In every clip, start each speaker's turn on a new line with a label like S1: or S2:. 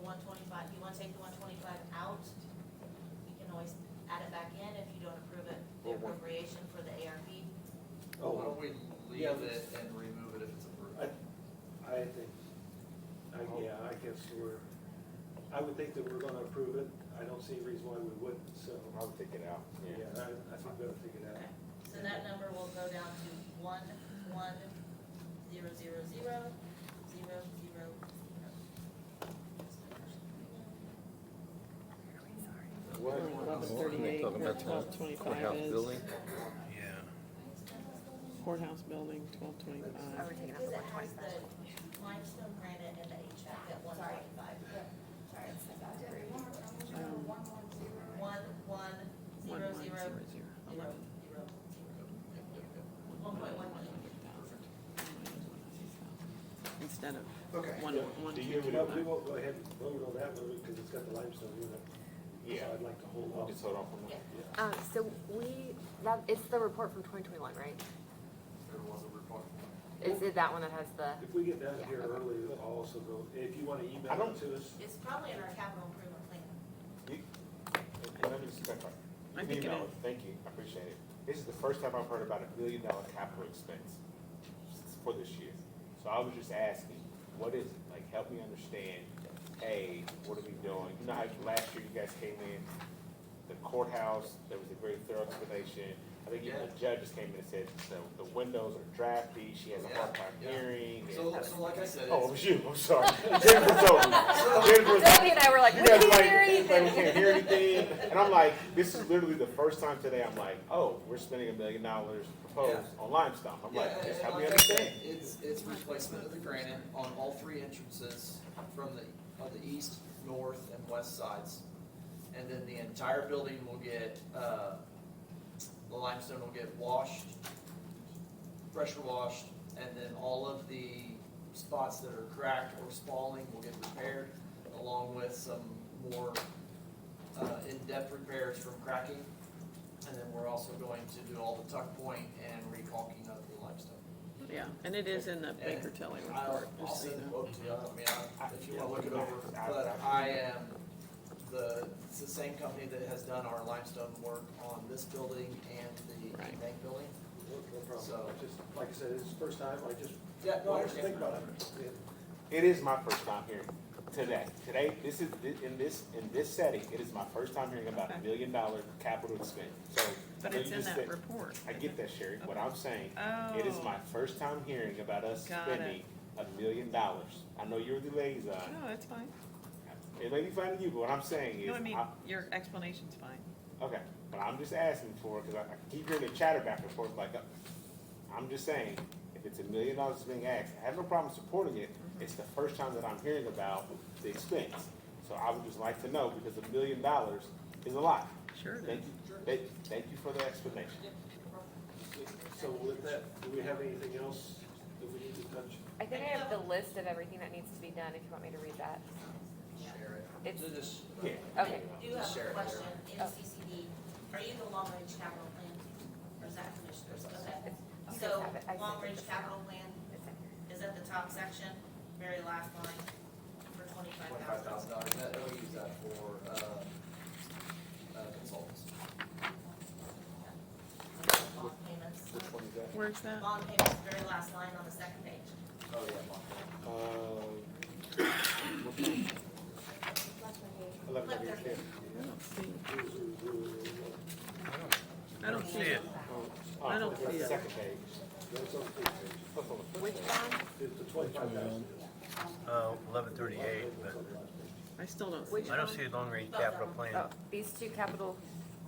S1: one twenty-five, you wanna take the one twenty-five out, you can always add it back in if you don't approve it, the
S2: Or what?
S1: appropriation for the ARP.
S3: Why
S2: Oh,
S3: don't we leave
S2: Yeah,
S3: it
S2: let's-
S3: and remove it if it's
S2: I,
S3: approved?
S2: I think, I, yeah, I guess we're, I would think that we're gonna approve it. I don't see a reason why we wouldn't, so,
S4: I would take it out,
S2: yeah,
S4: yeah.
S2: I, I think we'll figure it out.
S1: Okay, so that number will go down to one, one, zero, zero, zero, zero, zero, zero.
S5: Eleven thirty-eight, twelve twenty-five is courthouse building, twelve
S6: Are
S5: twenty-five.
S6: we taking out
S1: Because
S6: the
S1: it has
S6: one twenty-five?
S1: the limestone granite and the HVAC at one twenty-five. One, one, zero, zero, zero, zero, zero.
S3: Yep, yep, yep.
S1: One point one million.
S5: Instead of
S3: Okay.
S5: one, one,
S4: Do
S5: two,
S4: you-
S5: two,
S2: You know, we
S5: five.
S2: won't go ahead and vote on that one because it's got the limestone in it. So
S4: Yeah.
S2: I'd like to hold off.
S4: Just hold on for a minute, yeah.
S6: Um, so we, that, it's the report from twenty twenty-one, right?
S3: There was a report.
S6: Is it that one that has the,
S2: If we get down
S6: Yeah,
S2: here
S6: okay.
S2: early, I'll also go, if you wanna email
S4: I don't-
S2: it to us.
S1: It's probably in our capital improvement plan.
S4: Okay, let me just clarify.
S5: I think it
S4: Email,
S5: is.
S4: Thank you, I appreciate it. This is the first time I've heard about a million dollar capital expense s- for this year. So I was just asking, what is, it? like, help me understand, hey, what are we doing? You know how last year you guys came in, the courthouse, there was a very thorough explanation. I think even the judge just came in and said, the, the windows are drafty, she has a hard time
S3: Yeah, yeah.
S4: hearing. and-
S3: So, so like I said,
S4: Oh, it
S3: it's-
S4: was you, I'm sorry. Jennifer told me. Jennifer was
S6: Debbie and I were like,
S4: you
S6: we
S4: guys
S6: didn't
S4: like,
S6: hear
S4: like, we
S6: anything.
S4: can't hear anything. And I'm like, this is literally the first time today I'm like, oh, we're spending a million dollars proposed on limestone. I'm
S3: yeah,
S4: like,
S3: and-
S4: just
S3: and
S4: help me
S3: like I said,
S4: understand.
S3: It's, it's replacement of the granite on all three entrances from the, on the east, north, and west sides. And then the entire building will get, uh, the limestone will get washed, pressure washed, and then all of the spots that are cracked or spalling will get repaired, along with some more, uh, in-depth repairs from cracking. And then we're also going to do all the tuck point and recaulking of the limestone.
S5: Yeah, and it is in the Baker Tilly report,
S3: I'll, I'll
S5: just so you
S3: send the
S5: know.
S3: quote to you, I mean, I- if you wanna look it over,
S4: Yeah.
S3: but I am the, it's the same company that has done our limestone work on this building and the
S5: Right.
S3: bank building.
S2: No no problem.
S3: So-
S2: I Just, like I said, it's the first time. I just
S3: Yeah, no, I
S2: want us to think
S3: understand.
S2: about it. Yeah.
S4: It is my first time hearing today. Today, this is, in this, in this setting, it is my first time hearing about a
S5: Okay.
S4: million dollar capital expense. So.
S5: But
S4: so
S5: it's
S4: you
S5: in
S4: just
S5: that
S4: said-
S5: report.
S4: I get that, Sherry. What I'm saying,
S5: Oh.
S4: it is my first time hearing about us
S5: Got it.
S4: spending a million dollars. I know you're the liaison.
S5: No, that's fine.
S4: It may be fine to you, but what I'm saying is.
S5: No, I mean,
S4: I-
S5: your explanation's fine.
S4: Okay, but I'm just asking for, because I, I keep hearing the chatter back and forth, like, uh, I'm just saying, if it's a million dollars that's being asked, I have no problem supporting it,
S5: Mm-hmm.
S4: it's the first time that I'm hearing about the expense. So I would just like to know, because a million dollars is a lot.
S5: Sure it
S4: Thank
S5: is.
S4: you, thank, thank you for the explanation.
S2: So with that, do we have anything else that we need to touch?
S6: I think I have the list of everything that needs to be done, if you want me to read that.
S3: Share it.
S6: It's-
S3: So just-
S4: Yeah.
S1: I
S6: Okay,
S1: do have
S3: Just share
S1: a
S3: it.
S1: question, in
S6: Oh.
S1: CCD, are you the long-range capital plan, or is that commissioners? Okay,
S6: I
S1: so,
S6: have it. I sent it
S1: long-range
S6: to-
S1: capital plan is at the top section, very last line, for twenty-five
S3: Twenty-five
S1: thousand.
S3: thousand dollars, that, we'll use that for, uh, uh, consultants.
S1: Bond payments,
S4: Which one is that?
S5: Where's that?
S1: bond payments, very last line on the second page.
S3: Oh, yeah, Mark.
S4: Uh, eleven
S1: Eleven
S4: thirty,
S1: thirty.
S5: I don't see, I don't
S2: That's
S5: see it.
S4: Oh,
S5: I don't
S4: that's the
S5: see it.
S4: Second page.
S2: on the page.
S4: That's on the first
S6: Which
S4: page.
S6: one,
S2: It's the twenty-five thousand.
S7: Uh, eleven thirty-eight, but
S5: I still don't see
S6: which
S5: it.
S7: I
S6: one?
S7: don't see a long-range capital plan.
S6: Oh, these two capital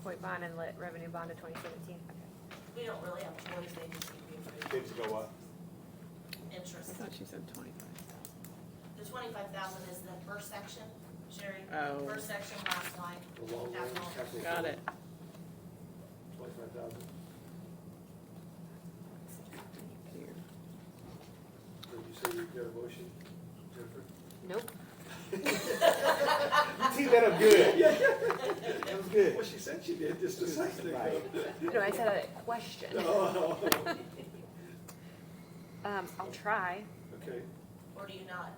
S6: point bond and lit revenue bond of twenty seventeen, okay.
S1: We don't really have choice, they just need to be approved.
S4: Things go up.
S5: I
S1: interest.
S5: thought she said twenty-five.
S1: The twenty-five thousand is the first section, Sherry,
S5: Oh.
S1: first section, last line,
S2: The long range
S1: Capital.
S2: capital.
S5: Got it.
S2: Twenty-five thousand.
S5: Here.
S2: Did you say you got a motion, Jennifer?
S6: Nope,
S4: You teed that up good. That was good.
S2: Well, she said she did, just a second ago.
S4: Right.
S6: no, I said a question.
S2: Oh,
S6: Um, I'll try.
S2: Okay,
S1: or do you not